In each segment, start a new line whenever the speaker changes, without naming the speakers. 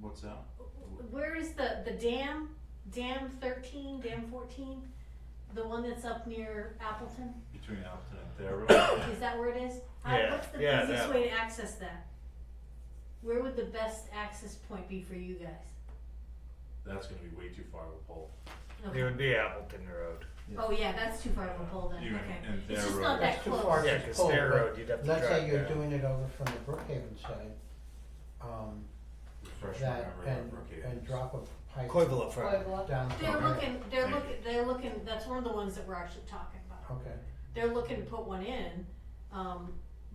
What's that?
Where is the, the dam, dam thirteen, dam fourteen? The one that's up near Appleton,
Between Appleton and Thera?
is that where it is? How-
Yeah,
What's the
yeah,
easiest
that
way to access that? Where would the best access point be for you guys?
That's gonna be way too far of a pull.
Okay.
It would be Appleton Road.
Oh, yeah, that's too far of a pole then,
Even
okay.
in
It's
their
just
road.
not that
It's too far.
close.
Yeah, because their road, you'd have to drive
Let's say you're
down.
doing it over from the Brookhaven side, um,
Refresh my
that,
memory on
and,
Brookhaven.
and drop a pipe
Coivula Road.
Pueblo.
down. to
They're
there.
looking, they're
Thank you.
looking, they're looking, that's one of the ones that we're actually talking about.
Okay,
They're looking to put one in, um,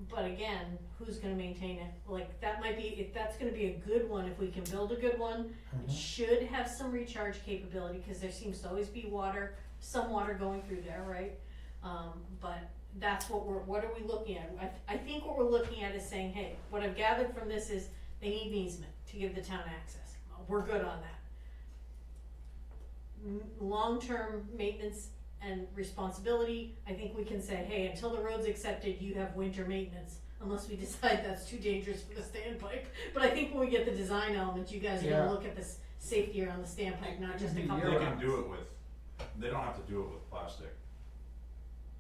but again, who's gonna maintain it? Like, that might be, if, that's gonna be a good one, if we can build a good one, It
mhm,
should have some recharge capability, cause there seems to always be water, some water going through there, right? Um, but that's what we're, what are we looking at? I, th- I think what we're looking at is saying, hey, what I've gathered from this is they need an easement to give the town access. We're good on that. M- Long-term maintenance and responsibility, I think we can say, hey, until the road's accepted, you have winter maintenance. Unless we decide that's too dangerous for the standpipe, but I think when we get the design elements, you guys are
Yeah.
gonna look at this safety around the standpipe, not just a
It could be
couple
They
of
year-round.
can
rounds.
do it with, they don't have to do it with plastic,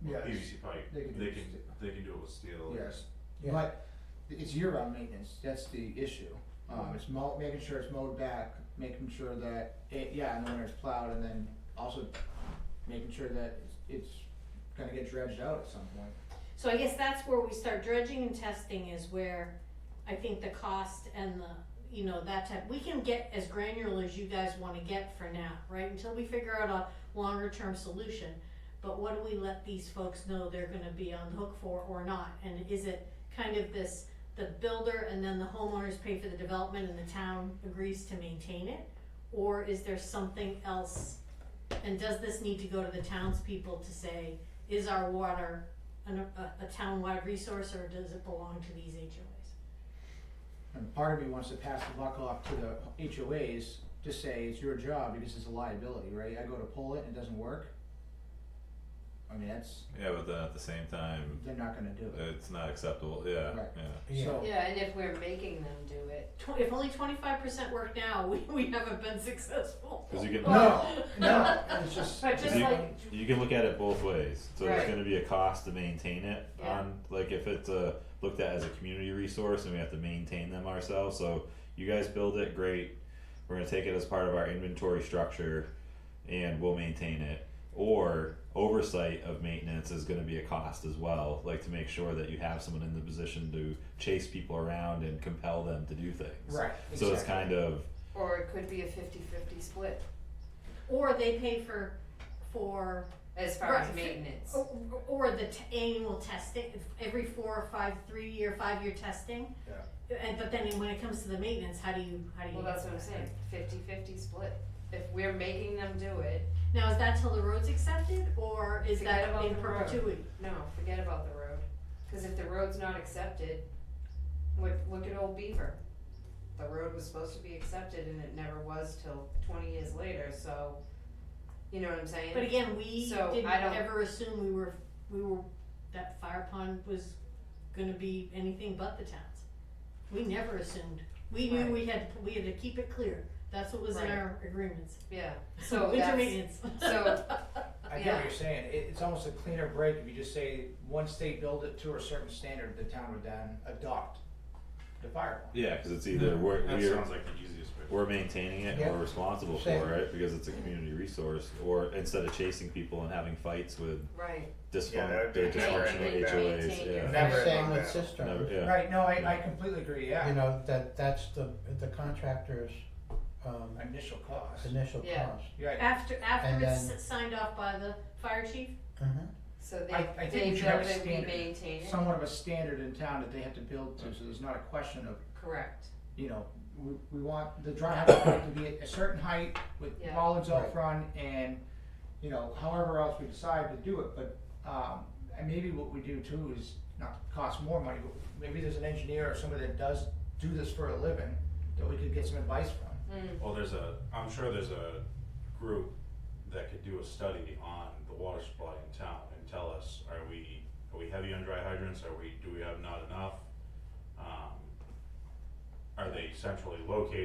Yeah, it's-
PVC pipe,
they
they
could
can,
do it with
they can do it with steel.
Yes.
Yeah.
But it's year-round maintenance, that's the issue. Um, it's mow, making sure it's mowed back, making sure that it, yeah, in the winter it's plowed, and then also making sure that it's, it's gonna get dredged out at some point.
So I guess that's where we start dredging and testing is where I think the cost and the, you know, that type, we can get as granular as you guys wanna get for now, right? Until we figure out a longer term solution, but what do we let these folks know they're gonna be on the hook for or not? And is it kind of this, the builder and then the homeowners pay for the development and the town agrees to maintain it? Or is there something else? And does this need to go to the townspeople to say, is our water an, a, a town-wide resource, or does it belong to these HOAs?
And part of me wants to pass the buck off to the HOAs to say it's your job because it's a liability, right? I go to pull it and it doesn't work. I mean, that's,
Yeah, but then at the same time,
they're not gonna do it.
it's not acceptable. Yeah,
Right.
yeah.
yeah,
So,
Yeah, and if we're making them do it,
Tw- If only twenty-five percent work now, we, we haven't been successful.
Because you can
no, no, it's just.
But just
you,
like,
you can look at it both ways. So
Right.
there's going to be a cost to maintain it.
Yeah.
On like if it's uh looked at as a community resource and we have to maintain them ourselves. So you guys build it, great. We're going to take it as part of our inventory structure, and we'll maintain it. Or oversight of maintenance is going to be a cost as well. Like to make sure that you have someone in the position to chase people around and compel them to do things.
Right,
So it's kind of
or it could be a fifty-fifty split
or they pay for, for,
as far as
Right. oh,
maintenance.
or, or the t- annual testing, if every four or five, three-year, five-year testing. Yeah. And, but then when it comes to the maintenance, how do you, how do you?
Well, that's what I'm saying, fifty-fifty split. If we're making them do it,
Now, is that till the road's accepted, or is
Forget
that
about
in
the road.
perpetuity?
no, forget about the road. Cause if the road's not accepted, look, look at Old Beaver. The road was supposed to be accepted and it never was till twenty years later, so, you know what I'm saying?
But again, we
So,
didn't
I don't-
ever assume we were, we were, that fire pond was gonna be anything but the town's. We never assumed, we knew
Right.
we had, to- we had to keep it clear, that's what was in
Right.
our agreements,
Yeah, so
winter
that's,
maintenance.
so-
I get what you're saying, it, it's almost a cleaner break if you just say, once they build it to a certain standard, the town would then adopt the fire pond.
yeah, because it's either we're,
That
we're
sounds like the easiest way.
we're maintaining it
Yeah.
and we're responsible
Same.
for it because it's a community resource or instead of chasing people and having fights with
right,
dysfunctional
Yeah, that would
they're
be
better.
dysfunctional
Maintain-
HOAs
maintain
yeah.
your-
Never
same
about
with
that.
cisterns,
Never, yeah.
Right, no, I, I
Yeah.
completely agree,
you
yeah,
know, that, that's the, the contractor's, um,
initial cost,
initial cost.
Yeah.
yeah,
After, after
And
it's
then-
signed off by the fire chief,
Mm-hmm.
Mhm.
so
I-
they,
I think
they
we
build
should have
it, we
standards.
maintain it,
somewhat of a standard in town that they have to build to, so there's not a question of,
correct,
you know, we, we want the dry hydrant pipe to be at a certain height with
Yeah.
bollards out
Right.
front and, you know, however else we decide to do it, but, um, and maybe what we do too is not cost more money, but maybe there's an engineer or somebody that does do this for a living that we could get some advice from.
Mm.
Well, there's a, I'm sure there's a group that could do a study on the water supply in town and tell us, are we, are we heavy on dry hydrants, are we, do we have not enough? Um, Are they centrally located?